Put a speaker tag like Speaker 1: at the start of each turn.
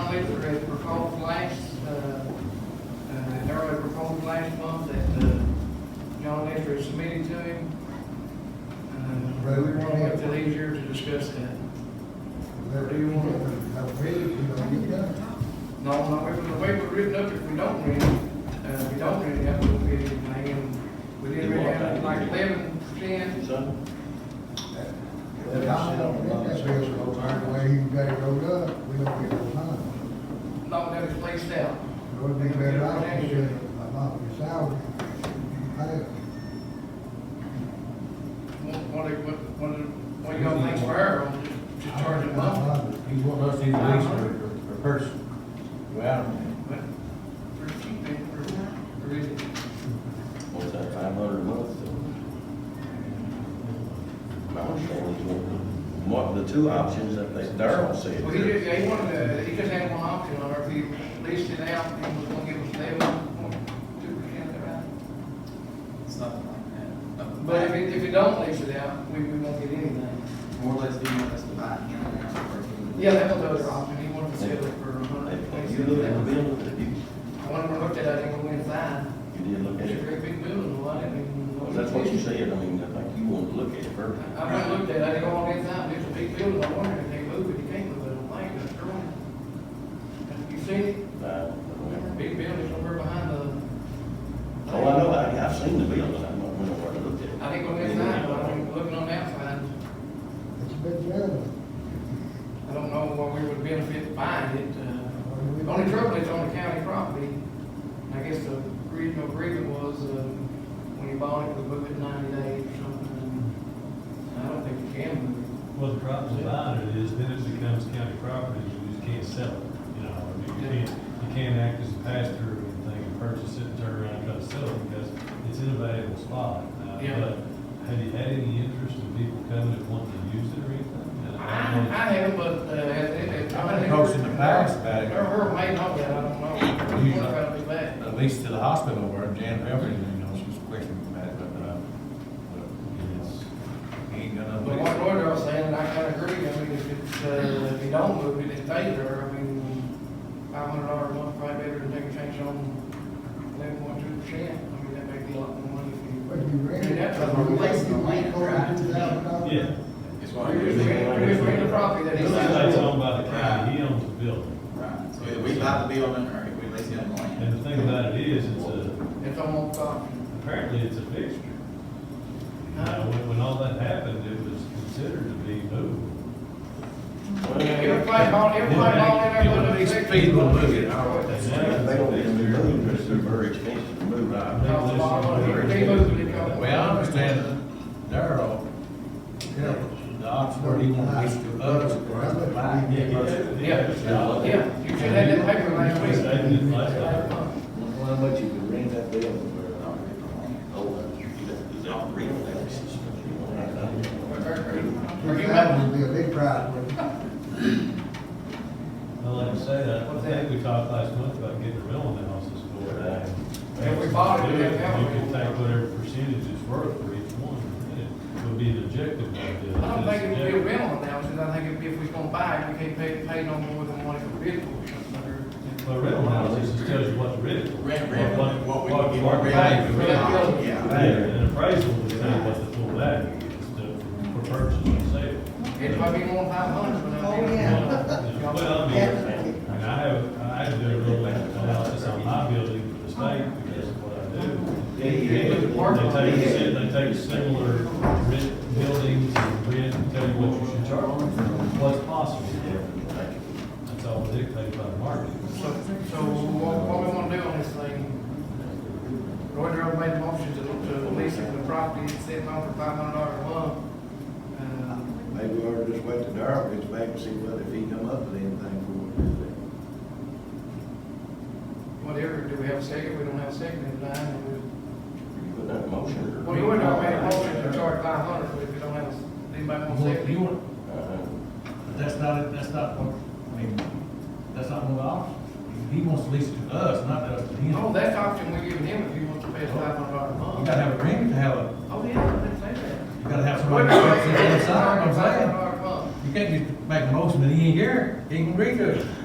Speaker 1: legislature has proposed last, uh, uh, earlier proposed last month that, uh, John Lester has submitted to him. Uh,
Speaker 2: Right, we
Speaker 1: we want
Speaker 2: want
Speaker 1: to
Speaker 2: to-
Speaker 1: make it easier to discuss that.
Speaker 2: Whatever you want, I'll read it, you know, you got it.
Speaker 1: No, no, it was the way we written up, if we don't read it, uh, we don't really have to pay anything, and we didn't really have like eleven percent.
Speaker 3: Son?
Speaker 2: The guy don't get that bill, so the way he got it rolled up, we don't get no time.
Speaker 1: No, that is placed out.
Speaker 2: It would be better off to say, I'm not your salary, you pay it.
Speaker 1: What, what, do- what, what do- what do y'all think for our, own, to charge them up?
Speaker 2: I
Speaker 3: He wants us to either lease or, or purchase. Well,
Speaker 1: But for cheap, they, for, for it.
Speaker 4: What's that, five hundred a month? I understand what you want. What, the two options that they, Darrell said.
Speaker 1: Well, he just, he wanted to, he just had one option, or if he leased it out, he was gonna give us eleven point two percent around.
Speaker 5: something like that.
Speaker 1: But if, it- if you don't lease it out, we, we won't get anything.
Speaker 5: More or less, do you want us to buy in and out or?
Speaker 1: Yeah, that was the other option, he wanted to sell it for a hundred and
Speaker 4: If
Speaker 1: twenty
Speaker 4: you look at the
Speaker 1: seven thousand.
Speaker 4: building, if you,
Speaker 1: When we looked at it, I think we went fine,
Speaker 4: you did look
Speaker 1: it's
Speaker 4: at
Speaker 1: a
Speaker 4: it,
Speaker 1: great big building, well, I didn't even. know
Speaker 4: well,
Speaker 1: it
Speaker 4: that's what you
Speaker 1: was-
Speaker 4: said, I mean, I think you want to look at it first.
Speaker 1: I went and looked at it, I didn't go on inside, it's a big building, I wondered if they moved it, they can't move it, I don't think, that's wrong. You see, it?
Speaker 4: Uh,
Speaker 1: big building somewhere behind the.
Speaker 4: Oh, I know, I, I've seen the building, I don't know where to look at it.
Speaker 1: I didn't go inside, but I'm looking on the outside,
Speaker 2: It's a big deal.
Speaker 1: I don't know what we would benefit buying it, uh. The only trouble is on the county property, and I guess the original agreement was, uh, when you bought it, we booked it ninety days or something, and I don't think you can move it.
Speaker 6: Well, the problem about it is then it becomes county property, you just can't sell it, you know, I mean, you can't, you can't act as a pass-through or anything and purchase it and turn around and try to sell it because it's in a valuable spot. Uh,
Speaker 1: Yeah.
Speaker 6: But have you had any interest in people coming and wanting to use it or anything?
Speaker 1: I,
Speaker 6: Uh, I don't know.
Speaker 1: I haven't, but, uh, has it,
Speaker 3: I've
Speaker 1: I
Speaker 3: been
Speaker 1: mean.
Speaker 3: approached in the past about it.
Speaker 1: Or her may not, I don't know,
Speaker 3: You-
Speaker 1: we're trying to be back.
Speaker 3: at least to the hospital where Jan Belvin, you know, she was questioning about it, but, uh, but he ain't gonna.
Speaker 1: But what Roy was saying, and I kinda agree, I mean, if it's, uh, if you don't move it, it's danger, I mean, five hundred dollars a month, probably better than taking a chance on eleven point two percent, I mean, that makes a lot more money if you.
Speaker 2: But you read it.
Speaker 1: That's
Speaker 5: a replacement land, right?
Speaker 2: $42,000.
Speaker 6: Yeah.
Speaker 5: It's
Speaker 1: We just rent- we just rent the property that
Speaker 6: It's
Speaker 1: he's.
Speaker 6: like owned by the county, he owns the building.
Speaker 5: Right, so if we buy the building or if we lease it on the land.
Speaker 6: And the thing about it is, it's a,
Speaker 1: It's almost, uh,
Speaker 6: Apparently, it's a fixture. You know, when, when all that happened, it was considered to be moved.
Speaker 1: everybody, bought- everybody bought in there, but it's.
Speaker 3: People will move it, I don't
Speaker 6: And
Speaker 3: think.
Speaker 6: now
Speaker 4: They don't
Speaker 6: it's a
Speaker 4: even
Speaker 6: fixture.
Speaker 4: move, it's very expensive to move out.
Speaker 1: Costs a lot of money, they moved it, it costs-
Speaker 3: Well, I understand Darrell, yeah, the Oxford, he wants to us, or us to buy
Speaker 6: Yeah,
Speaker 3: it.
Speaker 6: yeah,
Speaker 1: Yeah,
Speaker 3: Yeah.
Speaker 1: yeah, you should have that paper last
Speaker 6: You
Speaker 1: week.
Speaker 6: stated it last time.
Speaker 4: How much you could rent that uh, building Oh, is that real?
Speaker 1: Or- or- or you might-
Speaker 2: $42,000 would be a big price, but
Speaker 6: Well, like I say, I think we talked last month about getting a rental analysis for it.
Speaker 1: If we bought it, we have to have
Speaker 6: You
Speaker 1: it.
Speaker 6: can take whatever percentage it's worth for each one, and it would be an objective idea.
Speaker 1: I don't think it would be a rental analysis, I think if, if we're gonna buy it, we can't pay, pay no more than what it would be for, something
Speaker 6: But rental analysis just tells you what the rent.
Speaker 5: Rent, rent, what we
Speaker 6: What,
Speaker 5: can get,
Speaker 6: what
Speaker 5: what we
Speaker 6: value
Speaker 5: can
Speaker 6: the
Speaker 5: get.
Speaker 6: rent is.
Speaker 5: Yeah.
Speaker 6: Value, an appraisal will tell you what the full value is to, for purchase and sale.
Speaker 1: or. It might be more than five hundred, but I
Speaker 6: Well,
Speaker 1: think.
Speaker 6: I mean, and I have, I had to do a little analysis on my building for the state because of what I do.
Speaker 4: Yeah,
Speaker 6: They take, si- they take similar rent buildings and rent, and tell you what you should charge, what's possible. That's all dictated by the market.
Speaker 1: So, so what, what we wanna do on this thing, Roy Darrell made a motion to, to lease it for the property, it's sitting on for five hundred dollars a month. Uh,
Speaker 4: Maybe we ought to just wait till Darrell gets back and see what, if he come up with anything
Speaker 1: Whatever, do we have a second, we don't have a second in line, and
Speaker 4: for it. You put that motion. or-
Speaker 1: we, well, you wouldn't have made a motion to charge five hundred, but if you don't have, anybody want a second?
Speaker 3: You want,
Speaker 4: Uh-huh.
Speaker 3: But That's not, that's not what, I mean, that's not one of the options. He wants to lease it to us, not us to him.
Speaker 1: No, that's option we're giving him if he wants to pay us five hundred dollars a
Speaker 3: You
Speaker 1: month.
Speaker 3: gotta have a ring to have a,
Speaker 1: Oh, yeah, I didn't say that.
Speaker 3: you gotta have somebody that sits on the side, I'm saying. You can't just make a motion that he ain't here, he can agree to it.